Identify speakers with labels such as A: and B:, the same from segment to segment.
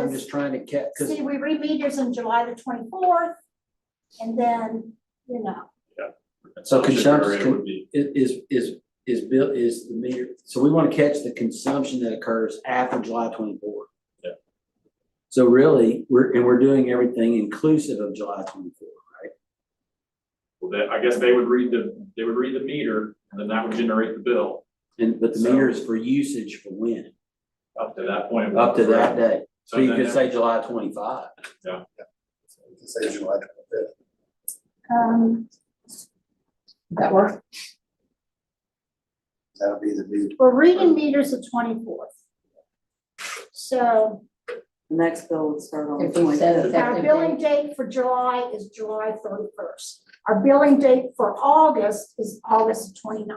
A: I'm just trying to catch, because,
B: See, we re-meet is on July the twenty-fourth, and then, you know,
A: So consumption-
C: area would be,
A: is, is, is bill, is the meter, so we want to catch the consumption that occurs after July twenty-four.
C: Yeah.
A: So really, we're, and we're doing everything inclusive of July twenty-four.
C: well, that, I guess they would read the, they would read the meter, and then that would generate the bill
A: And, but the
C: So-
A: meter is for usage for when?
C: up to that point.
A: Up to that day. So you
C: then
A: could
C: that-
A: say July twenty-five.
D: You can say July twenty-fifth.
B: um,
E: That work?
D: That'll be the new,
B: we're reading meters the twenty-fourth. So
F: The next bill would start on the
E: If we
F: twenty.
E: set
B: our
E: effective
B: billing
E: date,
B: date for July is July thirty-first. Our billing date for August is August 29th.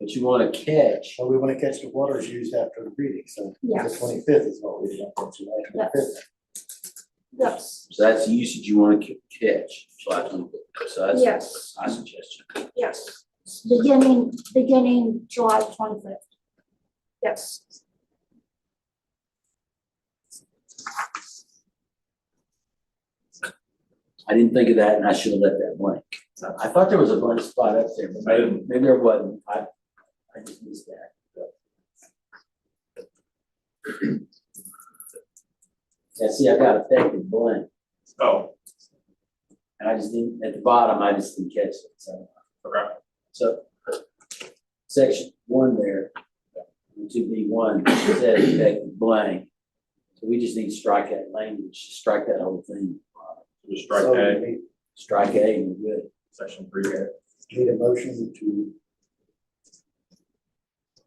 A: But you want to catch,
D: well, we wanna catch the waters used after the reading, so the
B: Yes.
D: twenty-fifth is what we want for July twenty-fifth.
B: Yes,
A: so that's the usage you want to catch, July twenty-four. So that's
B: yes,
A: my suggestion.
B: yes. Beginning, beginning July twenty-fifth. Yes.
A: I didn't think of that and I should have left that blank. I thought there was a blank spot up there, but
C: I
A: maybe,
C: didn't.
A: maybe there wasn't. I, I just missed that. Yeah, see, I got effective blank
C: Oh,
A: and I just didn't, at the bottom, I just didn't catch it, so.
C: okay,
A: So, section one there, two B one, said effective blank. So we just need to strike that language, strike that whole thing,
C: just strike A,
A: strike A and we're good.
C: section three A.
D: Need a motion to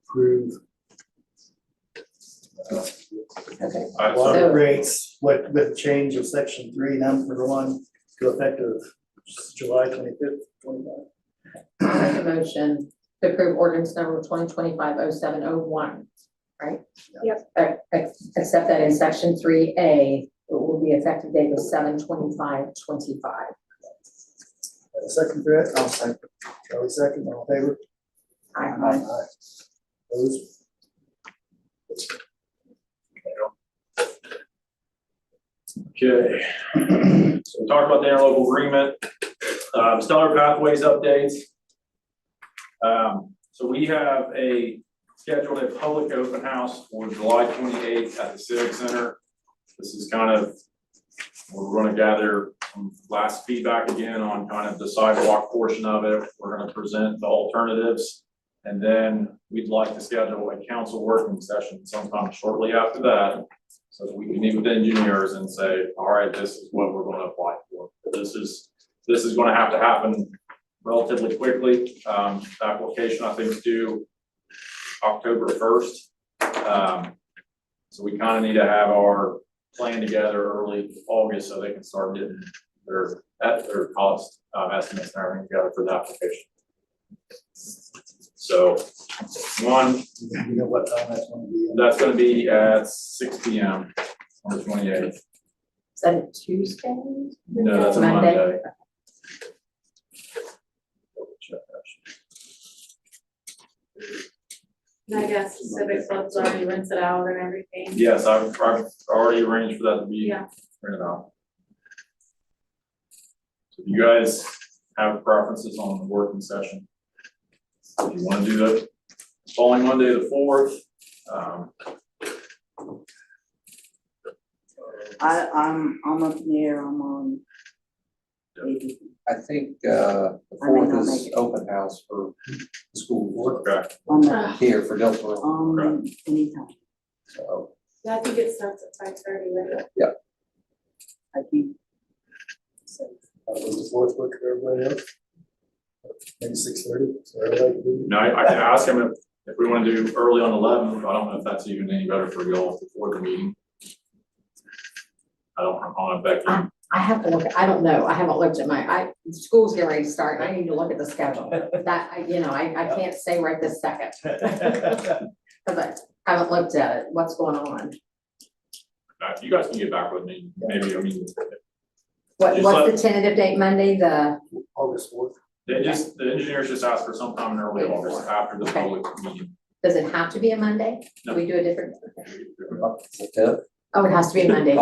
D: approve uh,
E: okay.
C: Alright, so
D: water
E: So-
D: rates with, with change of section three, number one, to effective July twenty-fifth, twenty-nine.
E: I'll make a motion to approve ordinance number twenty twenty-five oh seven oh one, right?
B: Yep.
E: Uh, ex- Except that in section three A, it will be effective date of seven twenty-five twenty-five.
D: Uh, Second threat, I'll second. Charlie second, all in favor?
E: I,
D: Those.
C: Okay, so we talked about the interlocal agreement, um, stellar pathways updates. Um, so we have a scheduled a public open house for July twenty-eighth at the Civic Center. This is kind of, we're gonna gather some last feedback again on kind of the sidewalk portion of it. We're gonna present the alternatives. And then we'd like to schedule a council working session sometime shortly after that. So that we can meet with engineers and say, all right, this is what we're gonna apply for. This is, this is gonna have to happen relatively quickly. Um, the application, I think, is due October first. Um, so we kind of need to have our plan together early August so they can start getting their, at their cost, um, estimates and everything together for the application. So, one,
D: You know what time that's gonna be?
C: that's gonna be at six P M on the twenty eighth.
E: is that a Tuesday?
C: No, that's a
E: Monday.
C: Monday.
G: I guess Civic Club's already rinsed it out and everything.
C: Yes, I've, I've already arranged for that to be
G: Yeah.
C: printed out. So if You guys have preferences on the working session? If you wanna do the following Monday, the fourth, um,
F: I, I'm, I'm up in the air, I'm on.
C: Yeah.
F: maybe.
H: I think uh the
F: I may
H: fourth
F: not
H: is
F: make it.
H: open house for the school board
C: okay,
F: On the,
H: here for Dillsborough,
F: um, anytime,
H: so.
G: I think it starts at five thirty, right?
F: I think.
D: Uh, was the fourth book for everybody else? Maybe six thirty, so everybody. can-
C: no, I I can ask him if, if we wanna do early on eleven, but I don't know if that's even any better for y'all before the meeting. I don't, I don't know, Becky.
E: I have to look, I don't know, I haven't looked at my, I, school's getting ready to start, I need to look at the schedule. That, I, you know, I, I can't say right this second, because I haven't looked at it, what's going on?
C: Uh, you guys can get back with me, maybe, I mean,
E: What,
C: Just
E: what's the tentative date, Monday, the,
D: August fourth.
C: they just, the engineers just asked for sometime in early
E: Wait for
C: August
E: it.
C: after the
E: Okay.
C: public meeting.
E: does it have to be a Monday? Do we do a different?
H: Okay.
E: Oh, it has to be a Monday.